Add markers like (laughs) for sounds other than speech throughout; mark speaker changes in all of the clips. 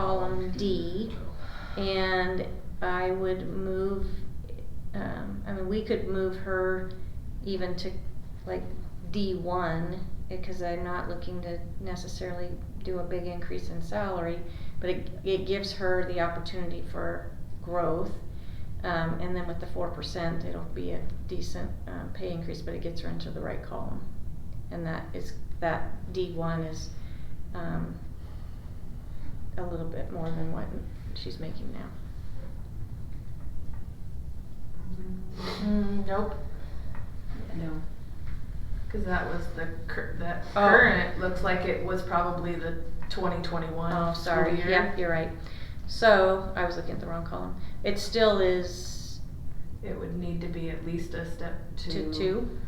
Speaker 1: column D, and I would move, um, I mean, we could move her even to like D one, because I'm not looking to necessarily do a big increase in salary, but it, it gives her the opportunity for growth. Um, and then with the four percent, it'll be a decent, um, pay increase, but it gets her into the right column. And that is, that D one is, um, a little bit more than what she's making now.
Speaker 2: Mm, nope.
Speaker 3: No.
Speaker 2: Because that was the cur- that
Speaker 1: Oh.
Speaker 2: current looks like it was probably the 2021.
Speaker 1: Oh, sorry,
Speaker 2: school year.
Speaker 1: yeah, you're right. So, I was looking at the wrong column. It still is
Speaker 2: It would need to be at least a step two.
Speaker 1: to two.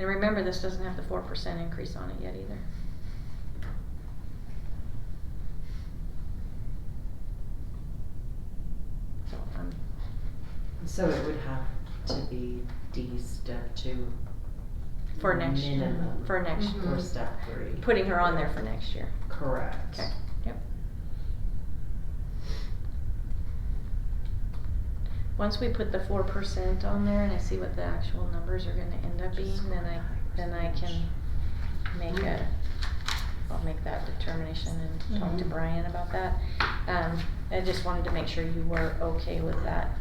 Speaker 1: And remember, this doesn't have the four percent increase on it yet either. So, um,
Speaker 3: So it would have to be D step two.
Speaker 1: for next,
Speaker 3: Minimum.
Speaker 1: for next, Mm-hmm.
Speaker 2: Mhm.
Speaker 3: Or step three.
Speaker 1: putting her on there for next year.
Speaker 3: Correct.
Speaker 1: Okay, yep. Once we put the four percent on there and I see what the actual numbers are gonna end up being, then I, then I can make a, I'll make that determination and talk to
Speaker 3: Mhm.
Speaker 1: Brian about that. Um, I just wanted to make sure you were okay with that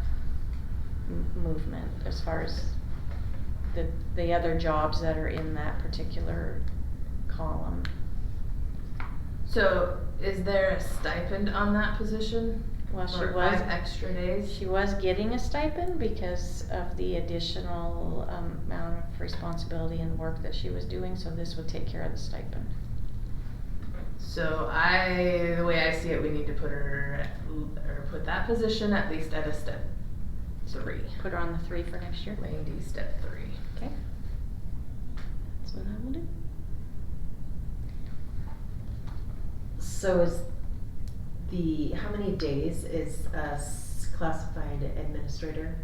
Speaker 1: m- movement as far as the, the other jobs that are in that particular column.
Speaker 2: So is there a stipend on that position?
Speaker 1: Well, she
Speaker 2: Or
Speaker 1: was.
Speaker 2: five extra days.
Speaker 1: She was getting a stipend because of the additional um, amount of responsibility and work that she was doing, so this would take care of the stipend.
Speaker 2: So I, the way I see it, we need to put her at, or put that position at least at a step three.
Speaker 1: Put her on the three for next year.
Speaker 2: Lady step three.
Speaker 1: Okay. That's what I will do.
Speaker 3: So is the, how many days is a s- classified administrator?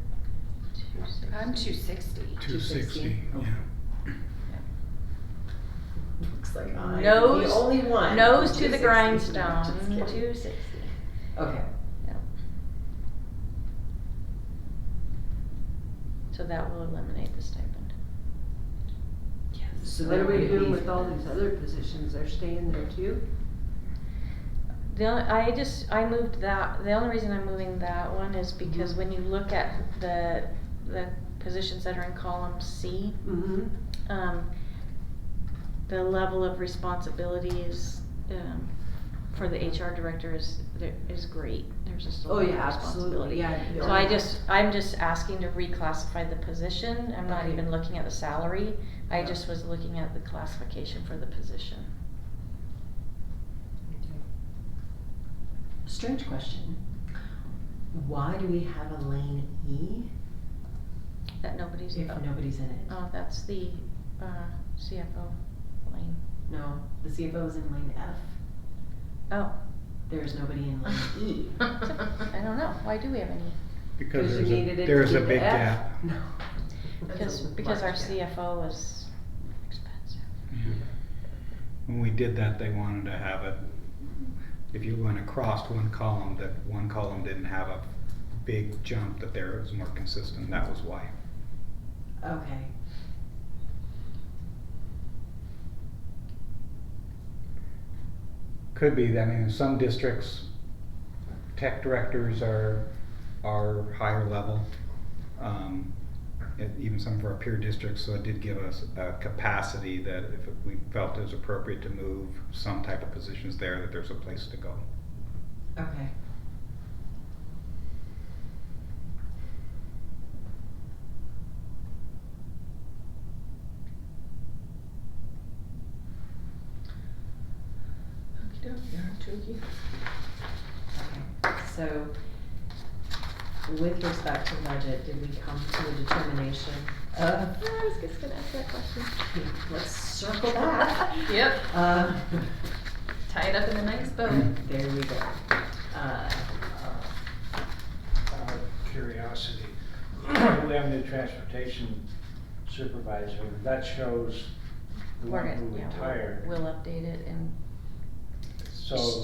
Speaker 1: Two, six.
Speaker 4: I'm two sixty.
Speaker 3: Two
Speaker 5: Two
Speaker 3: sixty.
Speaker 5: sixty, yeah.
Speaker 3: Looks like I'm the
Speaker 1: Nose-
Speaker 3: only one.
Speaker 1: Nose to
Speaker 3: Two
Speaker 1: the
Speaker 3: sixty.
Speaker 1: grindstone,
Speaker 3: Just kidding.
Speaker 1: two sixty.
Speaker 3: Okay,
Speaker 1: So that will eliminate the stipend.
Speaker 3: so
Speaker 6: What
Speaker 3: there
Speaker 6: are we
Speaker 3: would
Speaker 6: doing
Speaker 3: be-
Speaker 6: with all these other positions? They're staying there too?
Speaker 1: The only, I just, I moved that, the only reason I'm moving that one is because
Speaker 6: Mhm.
Speaker 1: when you look at the, the positions that are in column C,
Speaker 6: Mm-hmm.
Speaker 1: um, the level of responsibility is, um, for the HR director is, there- is great. There's just a
Speaker 6: Oh,
Speaker 1: lot of
Speaker 6: yeah,
Speaker 1: responsibility.
Speaker 6: absolutely, yeah.
Speaker 1: So I just, I'm just asking to reclassify the position. I'm not
Speaker 6: Okay.
Speaker 1: even looking at the salary. I
Speaker 6: Yeah.
Speaker 1: just was looking at the classification for the position.
Speaker 3: strange question. Why do we have a lane E
Speaker 1: That nobody's,
Speaker 3: if
Speaker 1: oh,
Speaker 3: nobody's in it?
Speaker 1: oh, that's the, uh, CFO lane.
Speaker 3: No, the CFO is in lane F.
Speaker 1: Oh, (laughs)
Speaker 3: There's nobody in lane E.
Speaker 1: I don't know. Why do we have any?
Speaker 5: Because
Speaker 6: Because you
Speaker 5: there's
Speaker 6: needed
Speaker 5: a,
Speaker 6: it
Speaker 5: there's
Speaker 6: to
Speaker 5: a
Speaker 6: be
Speaker 5: big
Speaker 6: the F.
Speaker 5: gap.
Speaker 6: (laughs)
Speaker 3: No.
Speaker 1: Because,
Speaker 2: That's a
Speaker 1: because our
Speaker 2: large gap.
Speaker 1: CFO is expensive.
Speaker 5: Yeah. When we did that, they wanted to have it, if you went across one column, that one column didn't have a big jump, that there was more consistent, that was why.
Speaker 3: Okay.
Speaker 5: Could be, I mean, in some districts, tech directors are, are higher level. um, and Even some of our peer districts, so it did give us a capacity that if we felt it was appropriate to move some type of positions there, that there's a place to go.
Speaker 3: Okay.
Speaker 2: Okey-doke, yeah, okey-dokey.
Speaker 3: Okay. So with respect to budget, did we come to a determination of,
Speaker 1: I was just gonna ask that question.
Speaker 3: let's circle
Speaker 1: (laughs)
Speaker 3: back.
Speaker 2: Yep.
Speaker 3: Uh, (laughs)
Speaker 2: Tie it up in a nice bow.
Speaker 3: there we go. Uh,
Speaker 7: out of curiosity, we have a new transportation supervisor, that shows the
Speaker 1: We're
Speaker 7: one
Speaker 1: gonna-
Speaker 7: who
Speaker 1: yeah, we'll-
Speaker 7: retired.
Speaker 1: We'll update it and
Speaker 7: so.